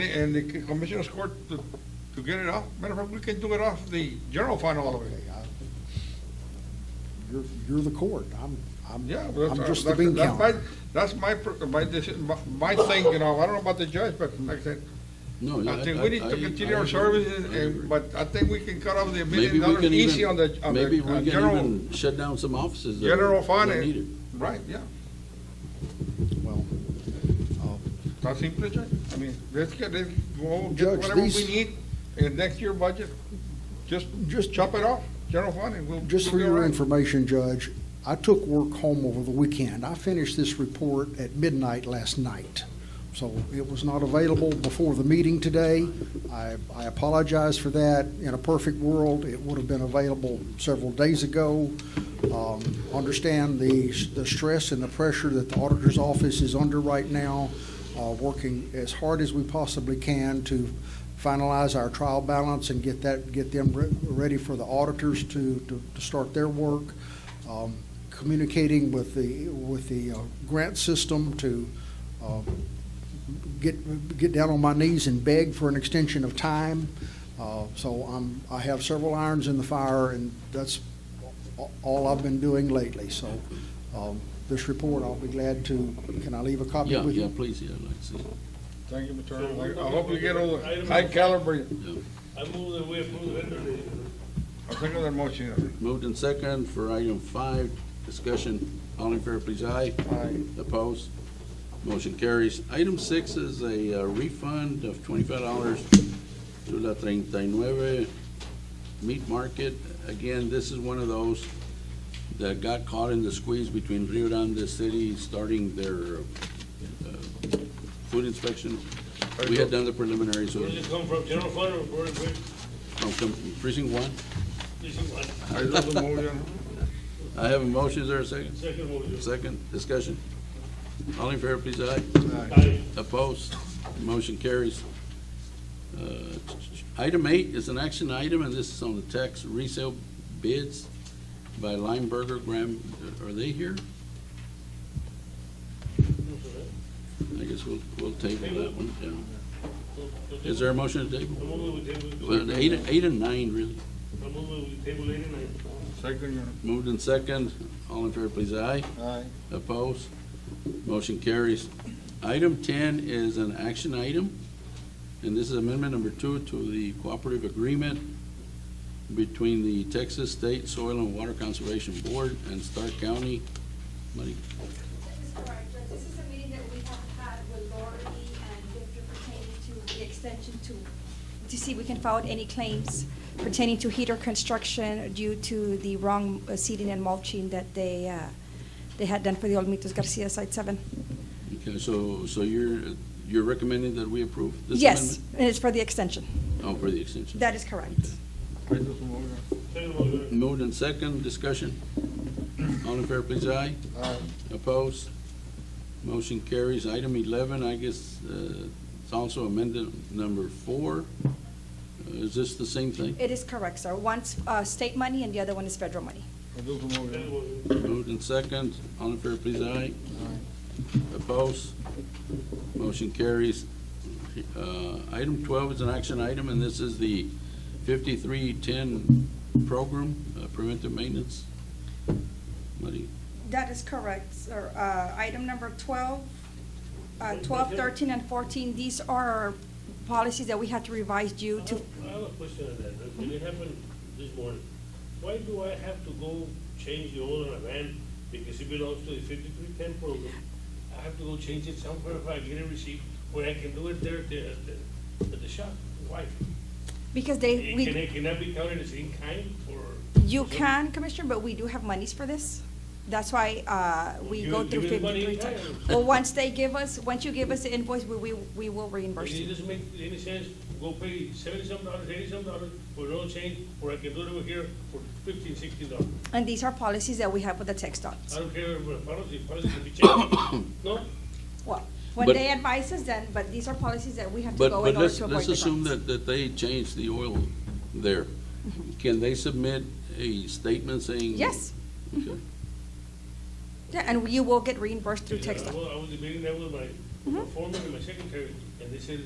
And, it- and the commissioner's court to, to get it off, matter of fact, we can do it off the general fund all of it. Okay, I- You're, you're the court. I'm, I'm, Yeah. well, I'm that's- uh, just the that's- bean that's counter. my- That's my, pr- my, deci- my- my thing, you know, I don't know about the judge, but like I said, No, I think we need Oh, I- to continue I our agree. services, I and, agree. but I think we can cut off the Maybe million we dollars can easy even- on the, on Maybe the we uh, can general, even shut down some offices. that- general that fund. need it. and- Right, yeah, Well, uh, that's simple, Judge. I mean, let's get, let's go, get Judge, whatever we these- need in next year budget, just, just Just- chop it off, general fund, and we'll. just for we'll be all your right. information, Judge, I took work home over the weekend. I finished this report at midnight last night. So it was not available before the meeting today. I, I apologize for that. In a perfect world, it would have been available several days ago. Um, Understand the, the stress and the pressure that the auditor's office is under right now, uh, working as hard as we possibly can to finalize our trial balance and get that, get them re- ready for the auditors to, to to start their work. Um, Communicating with the, with the uh, grant system to uh, get, get down on my knees and beg for an extension of time. Uh, So I'm, I have several irons in the fire, and that's a- all I've been doing lately. So um, this report, I'll be glad to, can I leave a copy Yeah, with you? yeah, please, yeah, like, see, Thank you, Mr. So we're Chairman. I gonna hope you look get at all the item- high caliber. yeah. I move that we approve the vendor list. I think of that motion. Moved in second for item five, discussion, all in favor, please, aye. Aye. Opposed? Motion carries. Item six is a uh, refund of twenty-five dollars to La Treinta y Nueve Meat Market. Again, this is one of those that got caught in the squeeze between Rio Grande City starting their uh, food inspection. We had done the preliminary, so Where does it come from, general fund or where, where, from precinct one. this is what, I do the motion. I have a motion, is there a second? second motion? Second, discussion. All in favor, please, aye. Aye. Opposed? Motion carries. Uh, Item eight is an action item, and this is on the tax resale bids by Limeberger Graham. Are they here? I guess we'll, we'll table that one, yeah. Is there a motion to I table? move that we table, Well, Eight, eight and nine, really. I move that we table eighty-nine. Second, you Moved in second. All in favor, please, aye. know. aye. Opposed? Motion carries. Item 10 is an action item, and this is amendment number two to the cooperative agreement between the Texas State Soil and Water Conservation Board and Stark County. Money. This is correct, but this is a meeting that we have had with Lori and Victor pertaining to the extension to, to see if we can file any claims pertaining to heater construction due to the wrong uh, seeding and mulching that they, uh, they had done for the Olmitos Garcia Site Seven. Okay, so, so you're, you're recommending that we approve this Yes, amendment? and it's for the extension. Oh, for the extension. That is correct. I do the motion. Second motion. Moved and second, discussion. All in fair, please, aye. Aye. Opposed? Motion carries. Item 11, I guess, uh, it's also amended number four. Uh, Is this the same thing? It is correct, sir. One's uh, state money and the other one is federal money. I do the Second motion. motion. Moved and second. All in favor, please, aye. Opposed? Motion carries. Uh, Item 12 is an action item, and this is the 5310 program, uh, preventive maintenance. Maria? That is correct, sir. Uh, Item number 12, uh, 12, 13, and 14, these are policies that we had to revise due to, I have a question on that, and it happened this morning. Why do I have to go change the oil in a van because it belongs to the fifty-three ten program? I have to go change it somewhere if I get a receipt, where I can do it there at the, at the, at the shop, why? because they, It Eh, Can Eh, we, it, can that be counted as in kind or? you can, Commissioner, but we do have monies for this. That's why uh, we You go give through us money 53 in times. time. Well, once they give us, once you give us the invoice, we, we we will reimburse It you. doesn't make any sense, go pay seventy-some dollars, eighty-some dollars for no change, or I can do it over here for fifteen, sixteen dollars. And these are policies that we have with the text I dots. don't care about policy, policy can be changed, no? Well, when But- they advise us then, but these are policies that we have to But, go but in order let's, to avoid let's the assume grants. that, that they changed the oil there. Can they submit a statement saying? Mm-hmm. Yes. Okay. Yeah, And you will get reimbursed through text I Mm-hmm. dot. was, I was debating that with my- my foreman and my secretary, and they said,